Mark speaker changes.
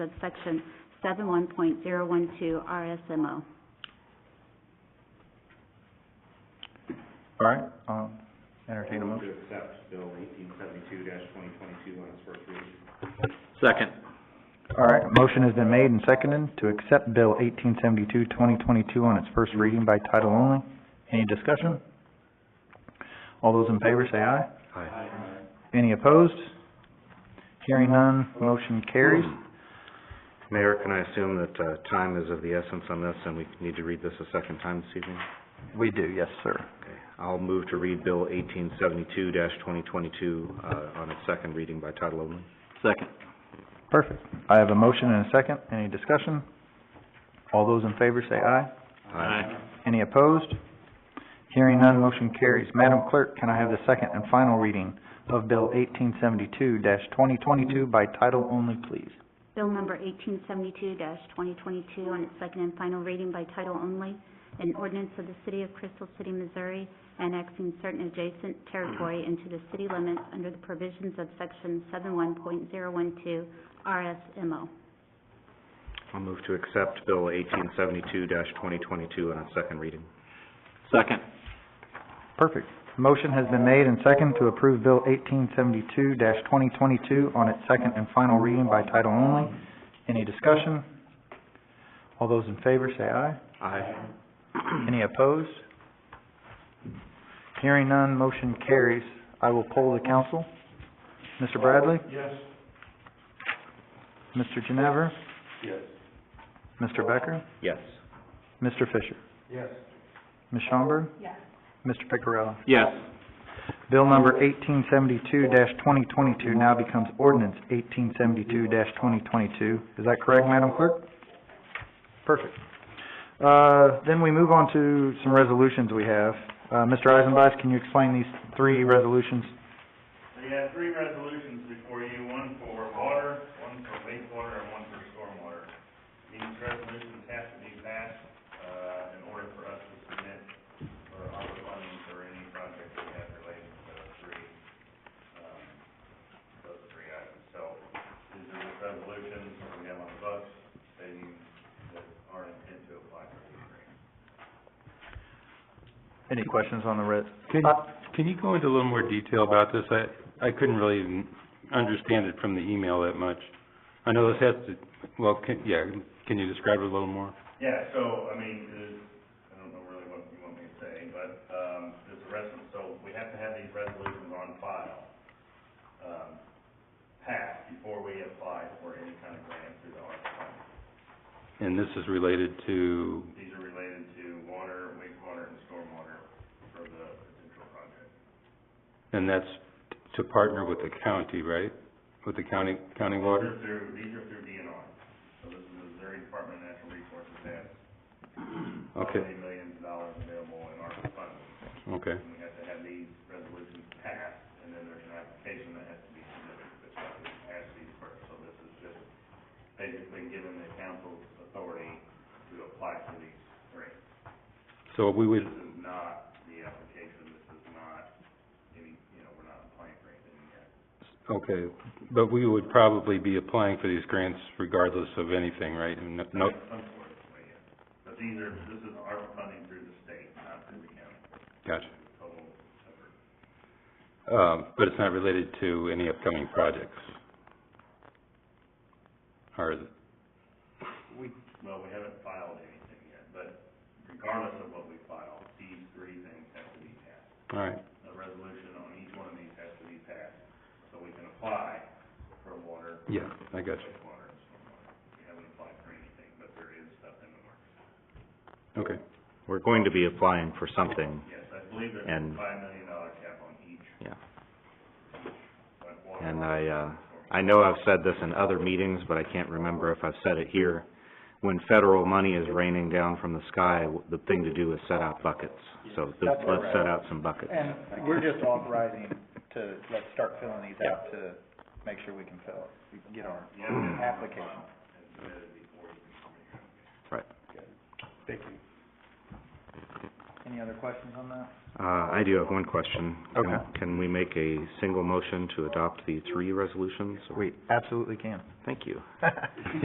Speaker 1: subsection seven one point zero one two RSMO.
Speaker 2: All right, um, entertain a motion.
Speaker 3: To accept Bill eighteen seventy-two twenty twenty-two on its first reading.
Speaker 4: Second.
Speaker 2: All right, a motion has been made and seconded to accept Bill 1872-2022 on its first reading by title only. Any discussion? All those in favor say aye.
Speaker 4: Aye.
Speaker 2: Any opposed? Hearing none, motion carries.
Speaker 3: Mayor, can I assume that, uh, time is of the essence on this, and we need to read this a second time this evening?
Speaker 2: We do, yes, sir.
Speaker 3: Okay. I'll move to read Bill eighteen seventy-two twenty twenty-two, uh, on its second reading by title only.
Speaker 4: Second.
Speaker 2: Perfect. I have a motion and a second. Any discussion? All those in favor say aye. Any opposed? Hearing none, motion carries. Madam Clerk, can I have the second and final reading of Bill eighteen seventy-two twenty twenty-two by title only, please?
Speaker 1: Bill number eighteen seventy-two twenty twenty-two on its second and final reading by title only, an ordinance of the city of Crystal City, Missouri, annexing certain adjacent territory into the city limits under the provisions of section seven one point zero one two RSMO.
Speaker 3: I'll move to accept Bill eighteen seventy-two twenty twenty-two on its second reading.
Speaker 4: Second.
Speaker 2: Perfect. Motion has been made and second to approve Bill eighteen seventy-two twenty twenty-two on its second and final reading by title only. Any discussion? All those in favor say aye.
Speaker 3: Aye.
Speaker 2: Any opposed? Hearing none, motion carries. I will poll the council. Mr. Bradley? Yes. Mr. Ginever? Yes. Mr. Becker?
Speaker 3: Yes.
Speaker 2: Mr. Fisher? Yes. Ms. Schaumburg? Yes. Mr. Picarella?
Speaker 4: Yes.
Speaker 2: Bill number eighteen seventy-two twenty twenty-two now becomes ordinance eighteen seventy-two twenty twenty-two. Is that correct, Madam Clerk? Perfect. Uh, then we move on to some resolutions we have. Uh, Mr. Eisenbach, can you explain these three resolutions?
Speaker 5: So you have three resolutions before you, one for water, one for wastewater, and one for stormwater. These resolutions have to be passed, uh, in order for us to submit for our funding for any project that we have related to those three, um, those three items. So these are the resolutions that we have on the books stating that our intent to apply for these grants.
Speaker 2: Any questions on the res-
Speaker 6: Can,
Speaker 2: Uh,
Speaker 6: can you go into a little more detail about this? I, I couldn't really even understand it from the email that much. I know this has to, well, can, yeah, can you describe it a little more?
Speaker 5: Yeah, so, I mean, it is, I don't know really what you want me to say, but, um, there's a resolution, so we have to have these resolutions on file, um, passed before we apply for any kind of grant through the ARPA fund.
Speaker 6: And this is related to,
Speaker 5: These are related to water, wastewater, and stormwater for the potential project.
Speaker 6: and that's to partner with the county, right? With the county, county
Speaker 5: These
Speaker 6: water?
Speaker 5: are through, these are through DNR, so this is Missouri Department of Natural Resources has
Speaker 6: Okay,
Speaker 5: twenty million dollars available in ARPA funding.
Speaker 6: okay.
Speaker 5: And we have to have these resolutions passed, and then there's an application that has to be submitted, that's why we pass these first. So this is just basically giving the council's authority to apply for these grants.
Speaker 6: So we would,
Speaker 5: This is not the application, this is not any, you know, we're not applying for anything yet.
Speaker 6: okay, but we would probably be applying for these grants regardless of anything, right? And no- No,
Speaker 5: Unfortunately, yeah. But these are, this is our funding through the state, not through the county,
Speaker 6: gotcha.
Speaker 5: total effort.
Speaker 6: Um, but it's not related to any upcoming projects? Or is it?
Speaker 5: We, well, we haven't filed anything yet, but regardless of what we file, these three things have to be passed.
Speaker 6: All right,
Speaker 5: a resolution on each one of these has to be passed, so we can apply for water,
Speaker 6: yeah, I got
Speaker 5: wastewater, and stormwater. We haven't applied for anything, but there is stuff in the works.
Speaker 6: you. Okay,
Speaker 3: We're going to be applying for something,
Speaker 5: Yes, I believe there's
Speaker 3: And-
Speaker 5: a five million dollar cap on each,
Speaker 3: yeah.
Speaker 5: but water.
Speaker 3: And I, uh, I know I've said this in other meetings, but I can't remember if I've said it here. When federal money is raining down from the sky, w- the thing to do is set out buckets. So th-
Speaker 2: That's
Speaker 3: let's
Speaker 2: correct.
Speaker 3: set out some buckets.
Speaker 2: And we're just authorizing to, let's start filling these out to make sure we can fill it, we can get our application.
Speaker 3: Right.
Speaker 2: Any other questions on that?
Speaker 3: Uh, I do have one question. Can-
Speaker 2: Okay.
Speaker 3: Can we make a single motion to adopt the three resolutions?
Speaker 2: We absolutely can.
Speaker 3: Thank you.